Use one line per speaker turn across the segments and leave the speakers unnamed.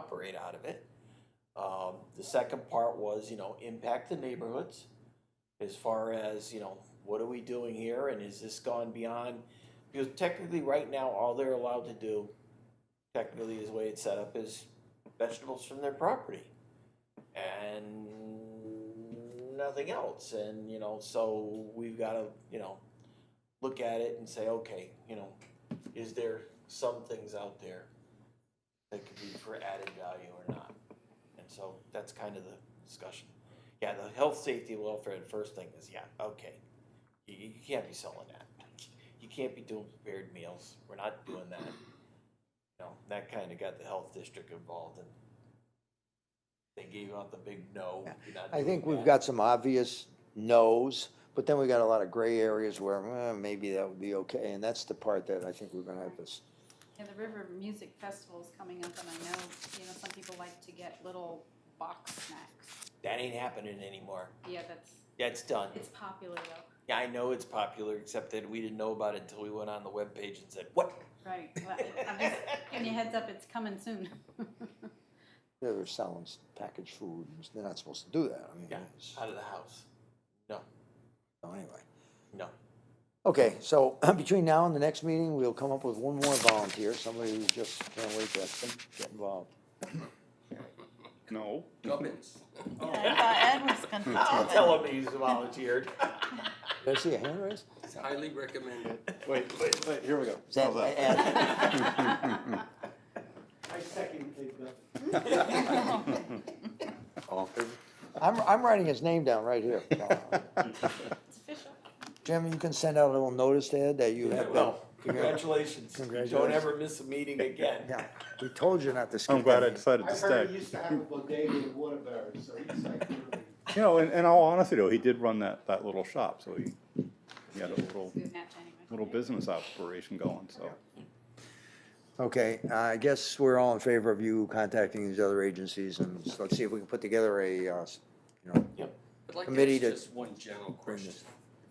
operate out of it. Um, the second part was, you know, impact the neighborhoods as far as, you know, what are we doing here and is this gone beyond? Because technically, right now, all they're allowed to do, technically, is the way it's set up, is vegetables from their property and nothing else. And, you know, so we've got to, you know, look at it and say, okay, you know, is there some things out there that could be for added value or not? And so that's kind of the discussion. Yeah, the health, safety, welfare, and first thing is, yeah, okay, you, you can't be selling that. You can't be doing prepared meals, we're not doing that. You know, that kind of got the health district involved and they gave out the big no, you're not
I think
doing
we've
that.
got some obvious no's, but then we got a lot of gray areas where eh, maybe that would be okay. And that's the part that I think we're gonna have this,
Yeah, the River Music Festival's coming up, and I know, you know, some people like to get little box snacks.
That ain't happening anymore,
Yeah, that's,
that's done.
it's popular though.
Yeah, I know it's popular, except that we didn't know about it until we went on the webpage and said, what?
Right, well, I'm just giving you a heads up, it's coming soon.
they're selling s- packaged food, and they're not supposed to do that, I mean,
Yeah,
it's-
out of the house. No,
so anyway.
no.
Okay, so between now and the next meeting, we'll come up with one more volunteer, somebody who just can't wait to get involved.
No.
Gubbins.
Oh.
I thought Ed was gonna
Hmm,
Oh.
I'll
do
tell him he's volunteered.
Did I see a hand raise?
It's highly recommended.
Wait, wait, wait, here we go.
Is that- Ed?
All in favor?
I'm, I'm writing his name down right here.
It's official.
Jim, you can send out a little notice to Ed that you have been.
Well, congratulations. Don't
Congratulations.
ever miss a meeting again.
Yeah, we told you not to skip.
I'm glad
that
I
meeting.
decided to
I heard he
stay.
used to have a bodega in Waterbury, so he's like, really-
You know, in, in all honesty though, he did run that, that little shop, so he, he had a little,
Good match anyway.
little business operation going, so.
Okay, uh, I guess we're all in favor of you contacting these other agencies and s- let's see if we can put together a, uh, s- you know,
I'd like
Committee
to
to-
ask just one general question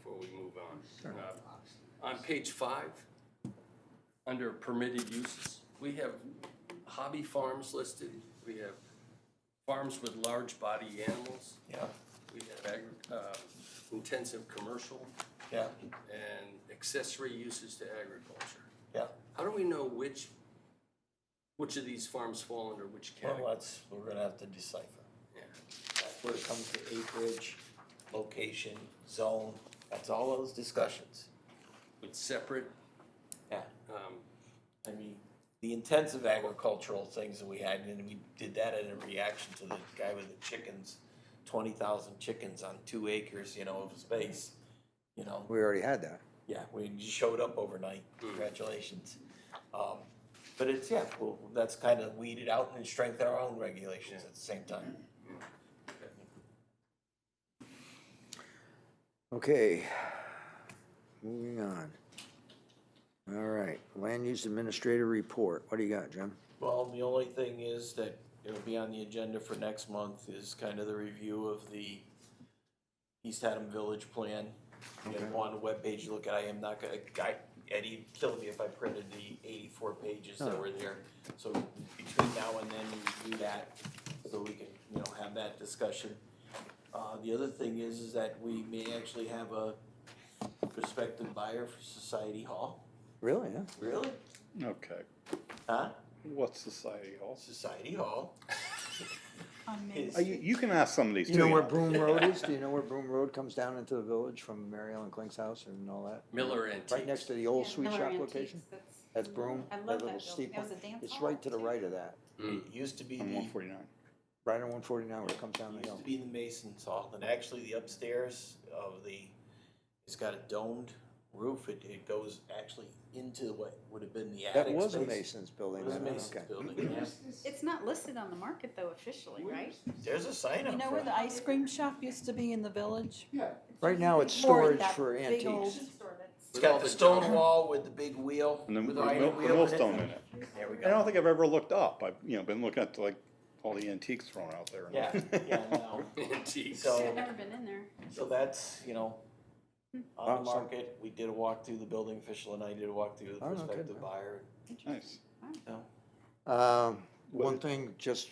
before we move on. Uh, On page five, under permitted uses, we have hobby farms listed, we have farms with large body animals,
Yeah,
we have agri, uh, intensive commercial
yeah,
and accessory uses to agriculture.
yeah.
How do we know which, which of these farms fall under which
Well, uh,
category?
that's, we're gonna have to decipher.
Yeah.
That's where it comes to acreage, location, zone, that's all those discussions.
With separate,
Yeah.
um,
I mean, the intensive agricultural things that we had, and we did that in a reaction to the guy with the chickens, twenty thousand chickens on two acres, you know, of space. You know,
we already had that.
yeah, we just showed up overnight, congratulations. Um, but it's, yeah, well, that's kind of weeded out and strengthened our own regulations at the same time.
Okay, moving on. All right, land use administrator report. What do you got, Jim?
Well, the only thing is that it'll be on the agenda for next month is kind of the review of the East Haddam Village Plan. We have one webpage to look at, I am not gonna, I, Eddie killed me if I printed the eighty-four pages that were there. So between now and then, we do that, so we can, you know, have that discussion. Uh, the other thing is, is that we may actually have a prospective buyer for Society Hall.
Really, huh?
Really?
Okay,
Huh?
what's society hall?
Society Hall is.
Uh, You, you can ask some of these too.
You know where Broom Road is? Do you know where Broom Road comes down into the village from Mary Ellen Clink's house and all that?
Miller Antiques.
Right next to the old
Yeah,
sweet
Miller
shop
Antiques,
location?
that's-
That's Broom,
I
that
love
little
that building.
steep
That was
one.
a dance
It's
hall,
right to the
too.
right of that,
It used to be
On one
the,
forty-nine.
right on one forty-nine where it comes down the
used
hill.
to be the Mason's Hall, and actually the upstairs of the, it's got a domed roof, it, it goes actually into what would have been the attic
That was a
space.
Mason's
It
building.
was a
then, okay.
Mason's building, yeah.
It's not listed on the market though officially, right?
There's a sign
You
up
know where
front.
the ice cream shop used to be in the village?
yeah.
Right now, it's
Or
storage
that
for
big old-
antiques.
Store that's-
It's
With all
got the
the
stone
junk.
wall with the big wheel,
And then the
with the iron
mill- the
wheel.
millstone in it.
There we
I don't
go.
think I've ever looked up. I've, you know, been looking at like all the antiques thrown out there. and-
Yeah, yeah, no.
Antiques.
So-
I've never been in there.
So that's, you know, on the
Awesome.
market, we did a walk through the building official and I did a walk through the
Oh, no kidding.
prospective buyer,
Nice.
so.
Um, one thing, just